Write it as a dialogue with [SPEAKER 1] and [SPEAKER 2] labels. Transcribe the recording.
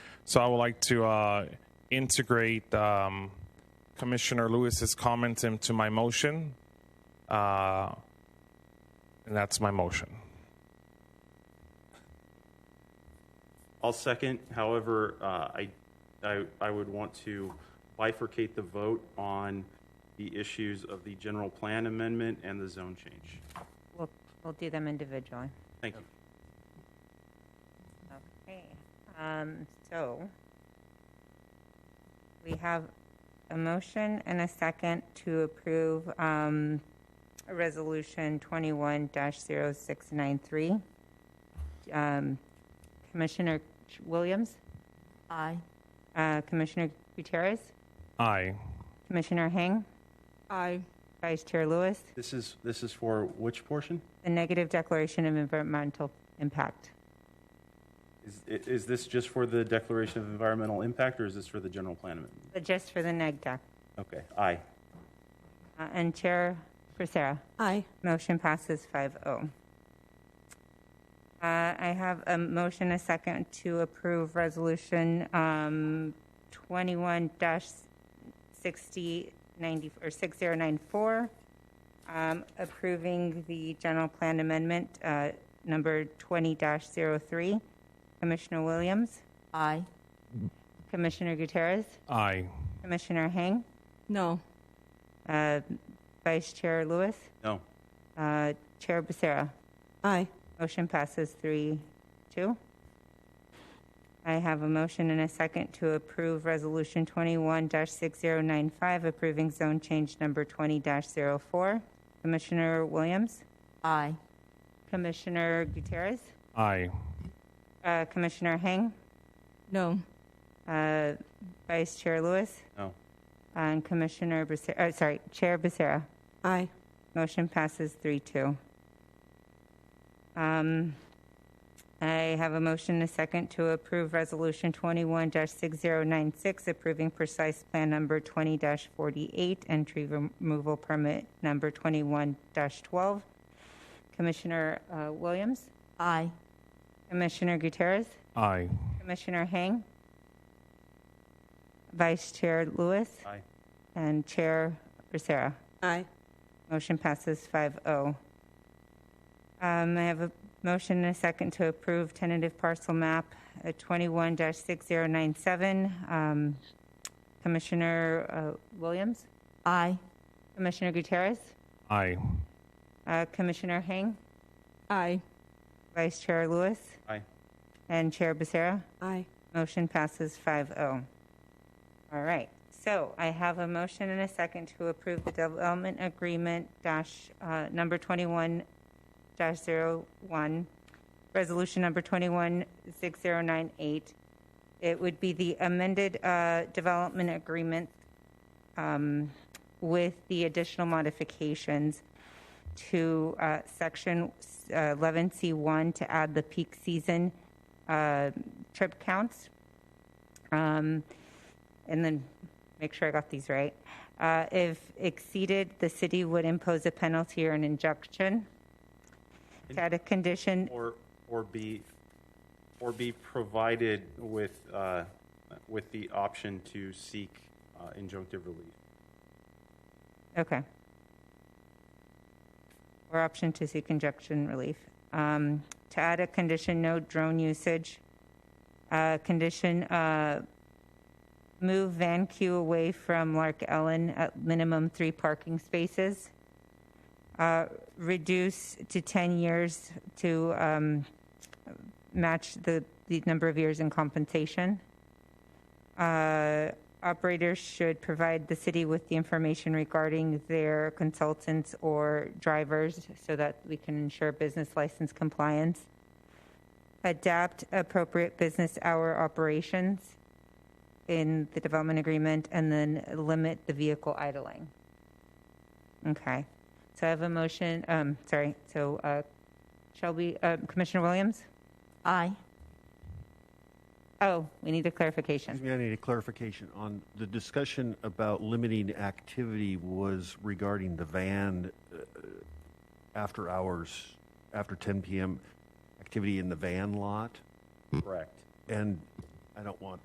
[SPEAKER 1] So I would like to uh, integrate um, Commissioner Lewis's comments into my motion. Uh, and that's my motion.
[SPEAKER 2] I'll second. However, uh, I, I, I would want to bifurcate the vote on the issues of the general plan amendment and the zone change.
[SPEAKER 3] We'll, we'll do them individually.
[SPEAKER 2] Thank you.
[SPEAKER 3] Okay, um, so we have a motion and a second to approve, um, Resolution twenty-one 693 Um, Commissioner Williams,
[SPEAKER 4] Aye.
[SPEAKER 3] uh, Commissioner Gutierrez,
[SPEAKER 1] Aye.
[SPEAKER 3] Commissioner Hang,
[SPEAKER 4] Aye.
[SPEAKER 3] Vice Chair Lewis,
[SPEAKER 2] This is, this is for which portion?
[SPEAKER 3] the negative declaration of environmental impact.
[SPEAKER 2] Is, i- is this just for the declaration of environmental impact or is this for the general plan amendment?
[SPEAKER 3] But just for the neg deck.
[SPEAKER 2] Okay, aye.
[SPEAKER 3] Uh, And Chair Sarah.
[SPEAKER 4] Aye.
[SPEAKER 3] Motion passes 5-0. Uh, I have a motion, a second, to approve Resolution um, 21-6090, or 6094, um, approving the general plan amendment, uh, number 20-03. Commissioner Williams,
[SPEAKER 4] Aye.
[SPEAKER 3] Commissioner Gutierrez,
[SPEAKER 1] Aye.
[SPEAKER 3] Commissioner Hang,
[SPEAKER 4] No.
[SPEAKER 3] uh, Vice Chair Lewis,
[SPEAKER 2] No,
[SPEAKER 3] uh, Chair Becerra.
[SPEAKER 4] Aye.
[SPEAKER 3] Motion passes three, two. I have a motion and a second to approve Resolution 21-6095, approving zone change number 20-04. Commissioner Williams,
[SPEAKER 4] Aye.
[SPEAKER 3] Commissioner Gutierrez,
[SPEAKER 1] Aye.
[SPEAKER 3] uh, Commissioner Hang,
[SPEAKER 4] No.
[SPEAKER 3] uh, Vice Chair Lewis,
[SPEAKER 2] no,
[SPEAKER 3] and Commissioner Becerra, uh, sorry, Chair Becerra.
[SPEAKER 4] Aye.
[SPEAKER 3] Motion passes three two. Um, I have a motion and a second to approve Resolution twenty-one six zero nine six, approving precise plan number twenty forty-eight and tree removal permit number twenty-one twelve. Commissioner uh, Williams,
[SPEAKER 4] Aye.
[SPEAKER 3] Commissioner Gutierrez,
[SPEAKER 1] Aye.
[SPEAKER 3] Commissioner Hang, Vice Chair Lewis,
[SPEAKER 2] aye.
[SPEAKER 3] and Chair Becerra.
[SPEAKER 4] Aye.
[SPEAKER 3] Motion passes 5-0. Um, I have a motion and a second to approve tentative parcel map uh, 21-6097. Um, Commissioner uh, Williams,
[SPEAKER 4] Aye.
[SPEAKER 3] Commissioner Gutierrez,
[SPEAKER 1] Aye.
[SPEAKER 3] uh, Commissioner Hang,
[SPEAKER 4] Aye.
[SPEAKER 3] Vice Chair Lewis,
[SPEAKER 2] Aye.
[SPEAKER 3] and Chair Becerra.
[SPEAKER 4] Aye.
[SPEAKER 3] Motion passes 5-0. All right, so I have a motion and a second to approve the development agreement dash, uh, number 21 dash 01, resolution number 216098. It would be the amended uh, development agreement um, with the additional modifications to uh, section uh, 11C1 to add the peak season uh, trip counts. Um, and then make sure I got these right. Uh, if exceeded, the city would impose a penalty or an injunction. To add a condition,
[SPEAKER 2] Or, or be, or be provided with, uh, with the option to seek uh, injunctive relief.
[SPEAKER 3] okay. Or option to seek injunction relief. Um, to add a condition, no drone usage. Uh, condition, uh, move Van Q away from Lark Ellen at minimum three parking spaces. Uh, reduce to 10 years to um, match the, the number of years in compensation. Uh, operators should provide the city with the information regarding their consultants or drivers so that we can ensure business license compliance. Adapt appropriate business hour operations in the development agreement and then limit the vehicle idling. Okay. So I have a motion, um, sorry, so, uh, Shelby, uh, Commissioner Williams?
[SPEAKER 4] Aye.
[SPEAKER 3] Oh, we need a clarification.
[SPEAKER 5] Excuse me, I need a clarification on the discussion about limiting activity was regarding the van uh, after hours, after 10 PM activity in the van lot.
[SPEAKER 2] Correct.
[SPEAKER 5] And I don't want